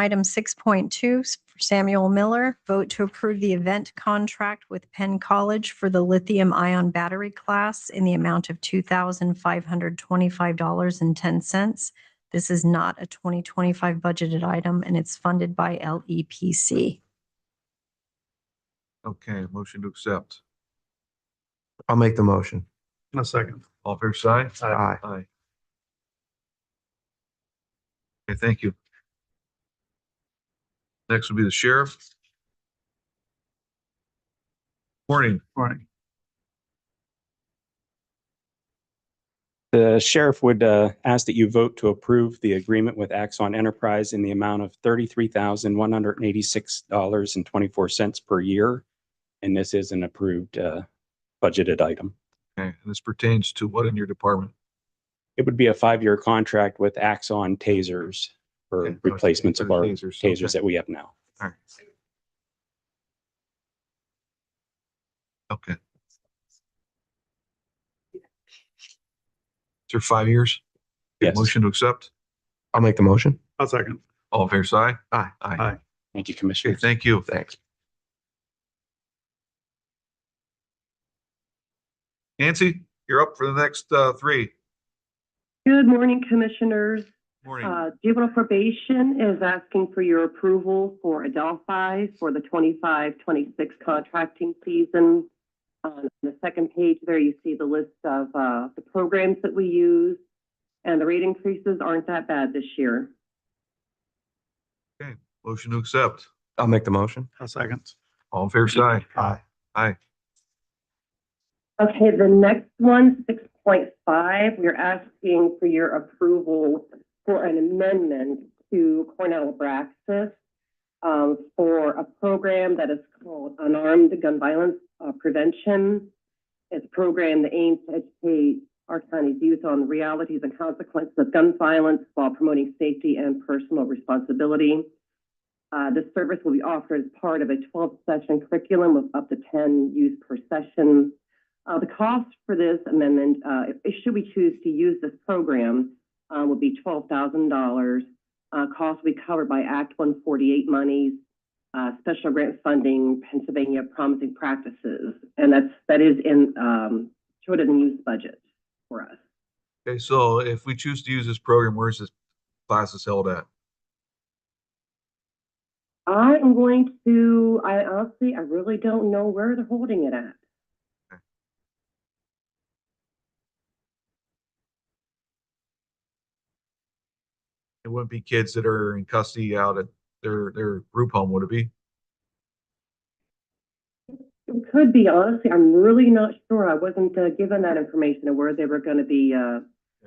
Item 6.2, s- for Samuel Miller, vote to approve the event contract with Penn College for the lithium ion battery class in the amount of $2,525.10. This is not a 2025 budgeted item, and it's funded by E LEPC. Okay, motion to accept. I'll make the motion. A second. All fair side? Aye. Aye. Aye. Okay, thank you. Next will be the sheriff. Morning. Morning. The sheriff would uh, ask that you vote to approve the agreement with Axon Enterprise in the amount of $33,186.24 per year. And this is an approved uh, budgeted item. Okay, and this pertains to what in your department? It would be a five-year contract with Axon tasers Okay. for replacements of our Tasers, okay. tasers that we have now. Okay. Through five years? Okay, Yes. Motion to accept. I'll make the motion. A second. All fair side? Aye. Aye. Aye. Thank Okay, you, Commissioner. thank you. Thanks. Nancy, you're up for the next uh three. Good morning, Commissioners. Morning. Uh, Juvenile probation is asking for your approval for Adelphi for the 25-26 contracting season. On the second page there, you see the list of, uh, the programs that we use. And the rate increases aren't that bad this year. Motion to accept. I'll make the motion. A second. All fair side? Aye. Okay, the next one, six point five, we're asking for your approval for an amendment to Cornell Braxis um, for a program that is called Unarmed Gun Violence uh, Prevention. It's a program that aims to educate our county's youth on the realities and consequences of gun violence while promoting safety and personal responsibility. Uh, this service will be offered as part of a twelve-session curriculum with up to ten youth per session. Uh, the cost for this amendment, uh, if- if should we choose to use this program, uh, would be twelve thousand dollars. Uh, cost will be covered by Act one forty-eight monies, uh, special grant funding, Pennsylvania promising practices. And that's, that is in, um, short of unused budget for us. Okay, so if we choose to use this program, where's this class is held at? I am going to, I honestly, I really don't know where they're holding it at. It wouldn't be kids that are in custody out at their their group home, would it be? It could be, honestly, I'm really not sure. I wasn't, uh, given that information of where they were gonna be, uh,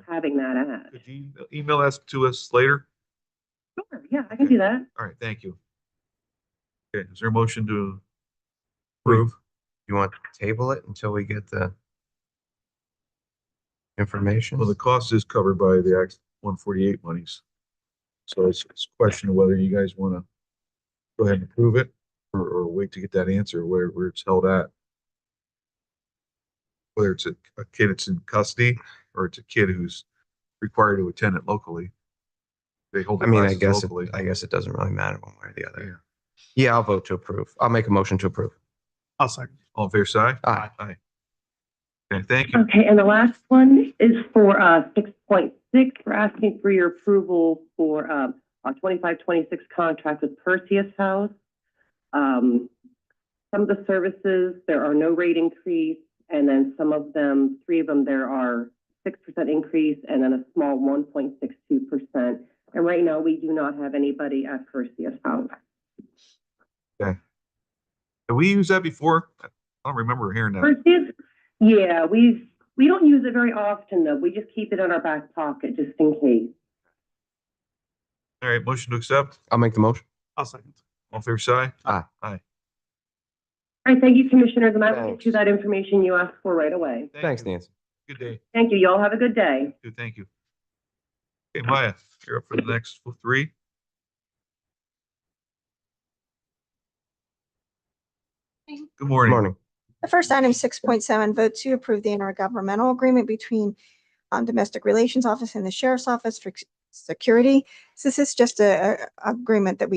having that at. Could you e-, email that to us later? Sure, yeah, I can do that. All right, thank you. Okay, is there a motion to approve? You want to table it until we get the information? Well, the cost is covered by the Act one forty-eight monies. So it's, it's a question of whether you guys wanna go ahead and approve it or, or wait to get that answer where, where it's held at. Whether it's a, a kid that's in custody or it's a kid who's required to attend it locally. They hold I the mean, I classes guess, it- locally. I guess it doesn't really matter one way or the other. Yeah, I'll vote to approve. I'll make a motion to approve. A second. All fair side? Aye. Aye. Okay, thank you. Okay, and the last one is for uh six point six. We're asking for your approval for um our twenty-five, twenty-six contract with Perseus House. Um, some of the services, there are no rate increase, and then some of them, three of them, there are six percent increase and then a small one point six two percent. And right now, we do not have anybody at Perseus House. Have we used that before? I don't remember hearing that. Perseus, yeah, we've, we don't use it very often though. We just keep it in our back pocket just in case. All right, motion to accept. I'll make the motion. A second. All fair side? All right, thank you, Commissioners, and I will Thanks. get you that information you asked for right away. Thank Thanks, you. Nancy. Good day. Thank you, y'all have a good day. Good, thank you. Okay, Maya, you're up for the next f- three. Morning. Good Good morning. morning. The first item, six point seven, vote to approve the intergovernmental agreement between um, Domestic Relations Office and the Sheriff's Office for ex- security. So This is just a, a- agreement that we